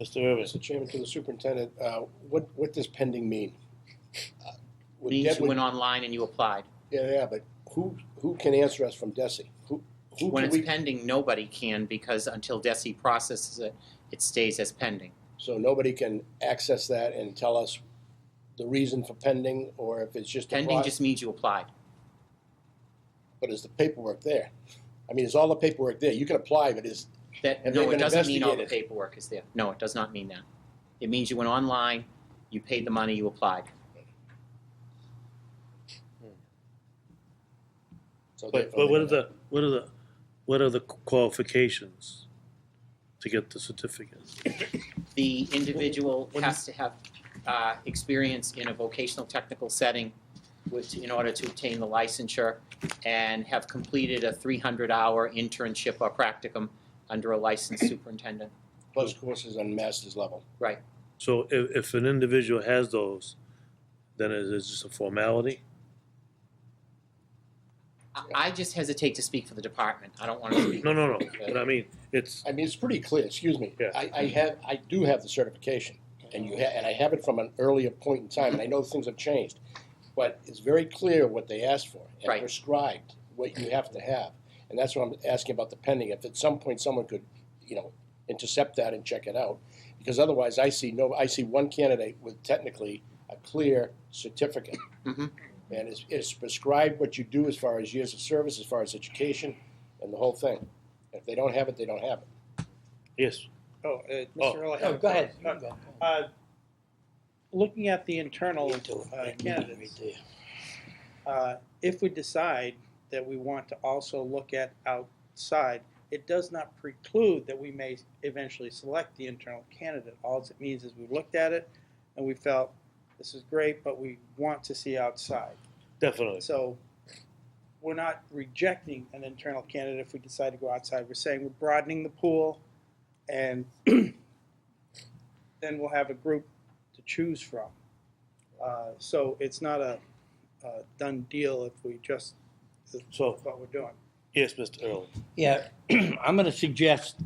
Mr. Irvin? Mr. Chairman, to the superintendent, uh, what, what does pending mean? Would Uh, Means Deb- you went online and you applied. Yeah, yeah, but who, who can answer us from DESI? Who, who When can it's we, pending, nobody can because until DESI processes it, it stays as pending. so nobody can access that and tell us the reason for pending, or if it's just a Pending pro- just means you applied. But is the paperwork there? I mean, is all the paperwork there? You can apply, but is, That, Have no, they it been doesn't mean all the investigated? paperwork is there. No, it does not mean that. It means you went online, you paid the money, you applied. so But, therefore but what they are the, what are the, what are the qualifications to get the certificate? The individual What has to have uh, experience in a vocational technical setting with, in order to obtain the licensure and have completed a 300-hour internship or practicum under a licensed superintendent. Plus courses on master's level. So if, if an individual has those, then it is just a formality? I- I just hesitate to speak for the department. I don't want to speak. No, no, no, but I mean, it's, I mean, it's pretty clear, excuse me. Yeah. I, I have, I do have the certification, and you ha, and I have it from an earlier point in time, and I know things have changed. But it's very clear what they asked for, Right. and prescribed what you have to have. And that's what I'm asking about the pending, if at some point someone could, you know, intercept that and check it out. Because otherwise, I see no, I see one candidate with technically a clear certificate. Mhm. And it's, it's prescribed what you do as far as years of service, as far as education, and the whole thing. If they don't have it, they don't have it. yes, Oh, uh, Oh. Mr. Earl, I Oh, have a go ahead. comment. Uh, Looking at the internal Into it, uh, right, meet it right candidates, there. uh, if we decide that we want to also look at outside, it does not preclude that we may eventually select the internal candidate. All it means is we looked at it and we felt, this is great, but we want to see outside. definitely. So we're not rejecting an internal candidate if we decide to go outside. We're saying we're broadening the pool and then we'll have a group to choose from. Uh, So it's not a a done deal if we just, So, what we're doing. yes, Mr. Early, Yeah, I'm gonna suggest,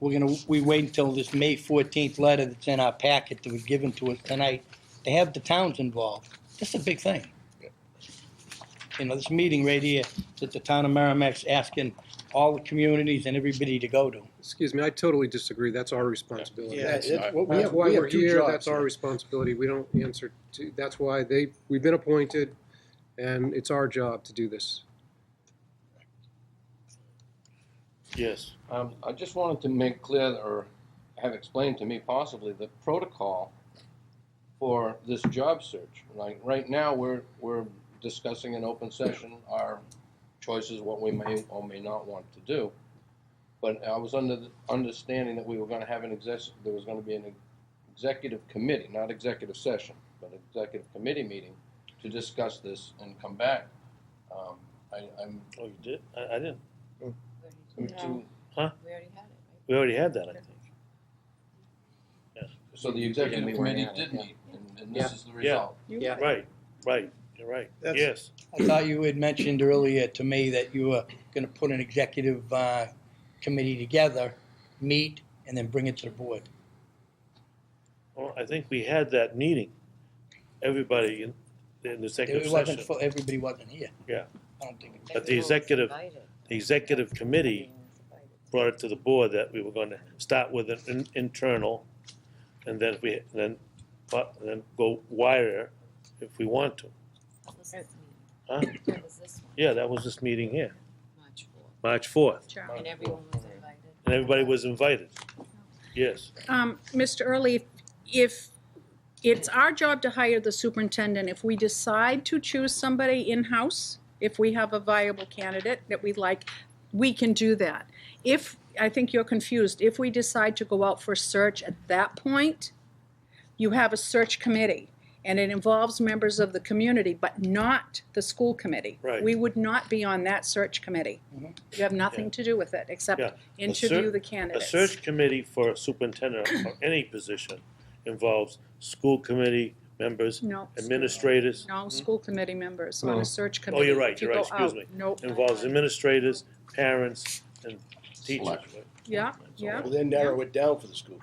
we're gonna, we wait until this May fourteenth letter that's in our packet that was given to us tonight, to have the towns involved. That's a big thing. You know, this meeting right here, that the town of Merrimack's asking all the communities and everybody to go to. Excuse me, I totally disagree. That's our responsibility. Yeah. That's it. Well, we That's have- why we have we're two here. jobs That's now. our responsibility. We don't answer to, that's why they, we've been appointed, and it's our job to do this. yes. Um, I just wanted to make clear, or have explained to me possibly, the protocol for this job search. Like, right now, we're, we're discussing in open session our choices, what we may or may not want to do. But I was under the understanding that we were gonna have an exec, there was gonna be an executive committee, not executive session, but executive committee meeting to discuss this and come back. Um, I, I'm, Oh, you did? I, I didn't, to, We already had it, right? we already had that, I think. So the executive committee did meet, and, and this is the result. Yeah. Right, right, you're right, That's- yes. I thought you had mentioned earlier to me that you were gonna put an executive, uh, committee together, meet, and then bring it to the board. Well, I think we had that meeting, everybody in, in the executive It wasn't, session. for everybody wasn't here. Yeah. I don't think it But the executive, the executive committee brought it to the board that we were gonna start with an in- internal, and then we, then, but, then go wider if we want to. Huh? That was this one, Yeah, that was this meeting here, March fourth. March fourth, And everyone was invited. and everybody was invited. Yes, Um, Mr. Early, if, if it's our job to hire the superintendent, if we decide to choose somebody in-house, if we have a viable candidate that we like, we can do that. If, I think you're confused, if we decide to go out for search at that point, you have a search committee, and it involves members of the community, but not the school committee. Right. We would not be on that search committee. Mhm. You have nothing to do with it, except Yeah. A cer- interview the a candidates. search committee for a superintendent or any position involves school committee members, No. administrators, No, school committee members on Oh. a search committee. Oh, you're right, If you you're right, go out, excuse Nope, involves administrators, parents, and teachers. Select. yeah, yeah. Well, then narrow it down for the school